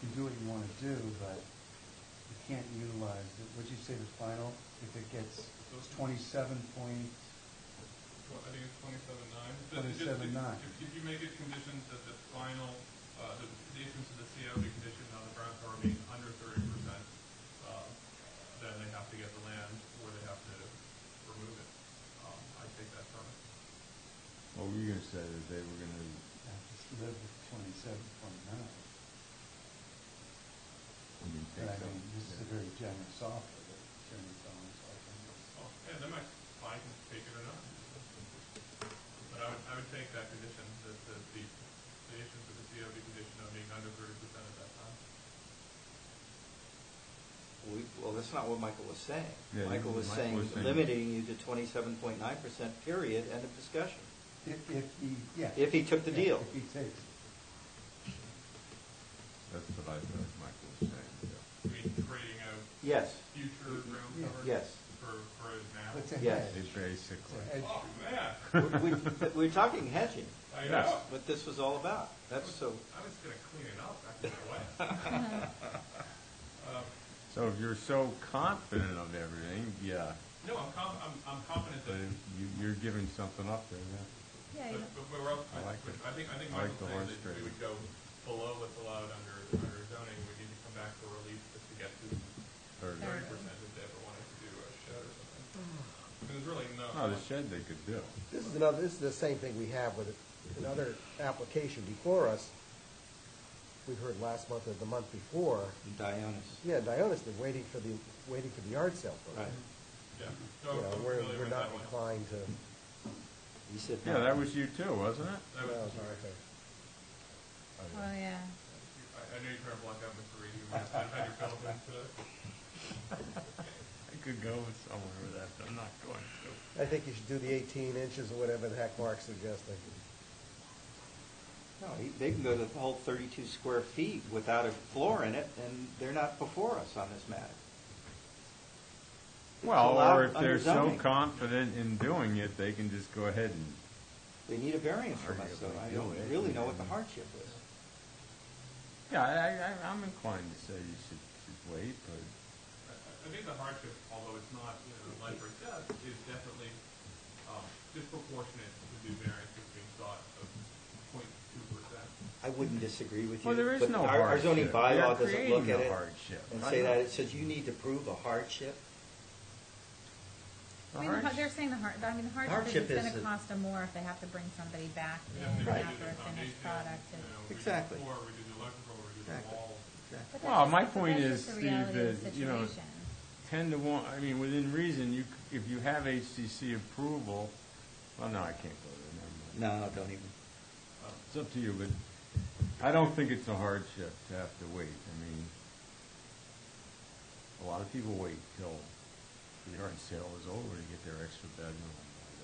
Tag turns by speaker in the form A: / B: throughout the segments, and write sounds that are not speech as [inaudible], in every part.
A: can do what you want to do, but you can't utilize it. Would you say the final, if it gets twenty-seven point,
B: Tw- I think it's twenty-seven
A: 27.9.
B: nine. If, if you make it conditioned that the final, uh, the, the issuance of the CO be conditioned on the brownfield being under thirty percent, uh, then they have to get the land or they have to remove it. Um, I take that from it.
C: What were you gonna say, that they were gonna,
A: I just live with twenty-seven point nine?
C: you didn't
A: But I
C: think so?
A: mean, this is a
C: Yeah.
A: very generous offer that Attorney Thomas offers.
B: Oh, yeah, they might find and take it or not. But I would, I would take that condition, that the, the, the issuance of the CO be conditioned on being under thirty percent at that time.
D: We, well, that's not what Michael was saying.
C: Yeah,
D: Michael was
C: Michael
D: saying
C: was saying-
D: limiting you to twenty-seven point nine percent, period, end of discussion.
A: If, if he, yeah.
D: If he took the
A: Yeah,
D: deal.
A: If he takes it.
C: That's what I thought Michael was saying, yeah.
B: I mean, trading out
D: Yes,
B: future ground
A: Yeah.
B: cover
D: yes.
B: for, for it now.
A: It's a
D: Yes.
A: hedge.
C: It's basically.
A: It's a hedge.
B: Oh, man.
D: We- we- We're talking hedging.
B: I
C: Yes.
B: know.
D: What this was all about. That's so,
B: I was gonna clean it up after my wife.
C: [laughs]
B: Um,
C: So if you're so confident of everything, yeah,
B: No, I'm com, I'm, I'm confident
C: but
B: that,
C: if you, you're giving something up there, yeah.
E: Yeah,
B: but,
E: you-
B: but we're up,
C: I
B: I
C: like it.
B: I think, I think
C: I like
B: Michael's
C: the
B: saying
C: horse
B: that we
C: trading.
B: would go below what's allowed under, under zoning, we need to come back for relief just to get to
C: Thirty.
B: thirty percent if they ever wanted to do a shed or something. There's really no.
C: Oh, the shed they could do.
F: This is another, this is the same thing we have with another application before us. We heard last month or the month before,
D: Dionis,
F: yeah, Dionis, they're waiting for the, waiting for the yard sale. vote.
D: right.
B: Yeah, no,
F: You know,
B: I'm
F: we're,
B: familiar
F: we're
B: with
F: not
B: that one.
F: inclined to,
D: He said.
C: Yeah,
D: no.
C: that was you too, wasn't it?
B: That was,
F: well,
B: I,
E: oh, yeah.
B: I knew you were trying to block out Mr. Reed, you might have had your Philippines today.
C: I could go somewhere with that, but I'm not going to.
F: I think you should do the eighteen inches or whatever the heck Mark's suggesting.
D: No, he- they can go to the whole thirty-two square feet without a floor in it, and they're not before us on this matter.
C: Well, or
D: allowed
C: if they're
D: under
C: so
D: zoning.
C: confident in doing it, they can just go ahead and,
D: They need a variance from us, so I don't really know what the hardship is.
C: yeah, I, I, I'm inclined to say you should, should wait, but
B: I I think the hardship, although it's not, you know, life or death, is definitely um, disproportionate to the variance that's being sought of 0.2 percent.
D: I wouldn't disagree with you.
C: Well, there is
D: but
C: no
D: our- Our zoning
C: hardship. We are
D: bylaw doesn't look
C: creating a
D: at it
C: hardship.
D: and
C: I
D: say
C: know.
D: that, it says you need to prove a hardship.
E: I mean, the har- they're saying the har, I mean, the
D: Hardship
E: hardship is it's
D: is
E: gonna
D: the-
E: cost them more if they have to bring somebody back
B: We
E: in
B: have to
D: Right.
B: redo
E: after
B: the
E: a finished
B: foundation,
E: product.
B: you
E: and-
B: know,
D: Exactly.
B: redo the floor, redo the electrical, redo the
D: Exactly.
B: walls.
E: but
C: Well,
E: that's
C: my
E: just- but
C: point is,
E: that's just the
C: Steve,
E: reality of the
C: that, you know,
E: situation.
C: ten to one, I mean, within reason, you, c- if you have HCC approval, well, no, I can't go there, never mind.
D: No, don't even.
B: um,
C: It's up to you, but I don't think it's a hardship to have to wait. I mean, a lot of people wait till the yard sale is over to get their extra bedroom
B: Yeah. I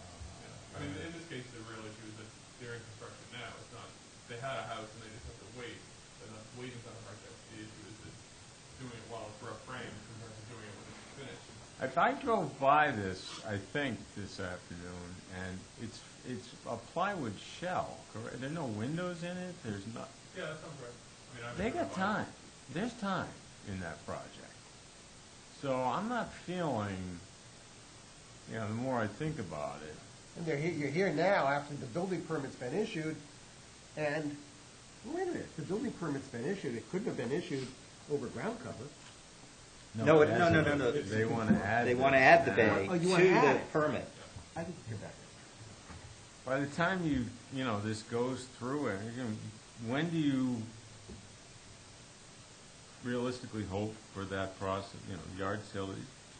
C: or
B: mean,
C: their.
B: in this case, the real issue is that they're in construction now. It's not, they had a house and they just have to wait. They're not waiting on a hardship. The issue is that doing it while it's rough frame compared to doing it when it's finished.
C: If I drove by this, I think this afternoon, and it's, it's a plywood shell, correct? There are no windows in it, there's not,
B: Yeah, that sounds right. I mean, I
C: They
B: remember
C: got
B: buying it.
C: time. There's time in that project. So I'm not feeling, you know, the more I think about it,
F: And they're, he- you're here now after the building permit's been issued, and, wait a minute, the building permit's been issued, it couldn't have been issued over ground cover.
D: No, it- no, no, no, no.
C: They want to add.
D: They
C: this
D: want to add the
C: now.
D: bay
F: Oh,
D: to
F: you wanna add
D: the
F: it.
D: permit.
F: I didn't hear that.
C: By the time you, you know, this goes through it, you're gonna- when do you realistically hope for that process, you know, yard sale?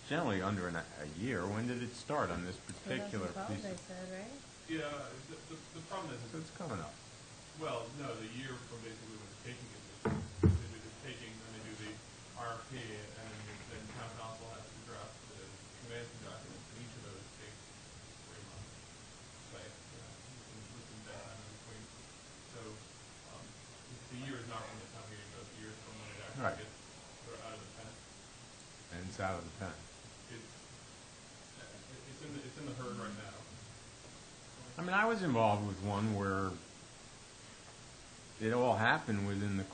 C: Generally under an, a year. When did it start on this particular
E: 2012,
C: piece?
E: they
C: of-
E: said, right?
B: Yeah, the, the, the problem is,
C: So it's coming up.
B: Well, no, the year from basically when the taking is, they do the taking, then they do the RFP, and then the- then town council has to draft the commencement documents, and each of those takes three months. Like, uh, within that time in between. So, um, the year is not when the town meeting goes, the year is from when it
C: Right.
B: actually gets sort of out of the pen.
C: And it's out of the pen.
B: It's, uh, it- it's in the, it's in the herd right now.
C: I mean, I was involved with one where it all happened within the